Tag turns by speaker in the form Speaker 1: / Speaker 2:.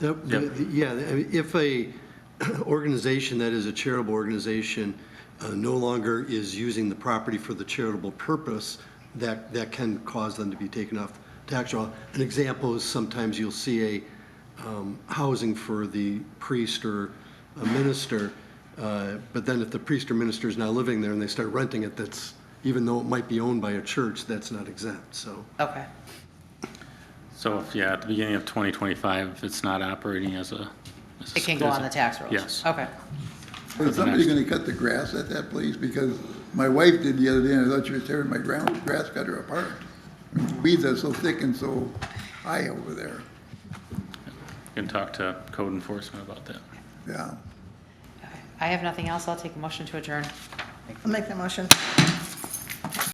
Speaker 1: The- the- Yeah, I mean, if a organization that is a charitable organization uh, no longer is using the property for the charitable purpose, that, that can cause them to be taken off tax roll. An example is sometimes you'll see a um, housing for the priest or a minister, uh, but then if the priest or minister is now living there and they start renting it, that's, even though it might be owned by a church, that's not exempt, so.
Speaker 2: Okay.
Speaker 3: So, if, yeah, at the beginning of 2025, if it's not operating as a. as a-
Speaker 2: It can go
Speaker 3: as
Speaker 2: on
Speaker 3: a-
Speaker 2: the tax rolls?
Speaker 3: Yes.
Speaker 2: Okay.
Speaker 4: Is somebody gonna cut the grass at that place? Because my wife did the other day, and I thought she was tearing my ground, grass cutter apart. Weeds are so thick and so high over there,
Speaker 3: Can talk to code enforcement about that.
Speaker 4: yeah.
Speaker 2: I have nothing else. I'll take a motion to adjourn.
Speaker 5: I'll make the motion.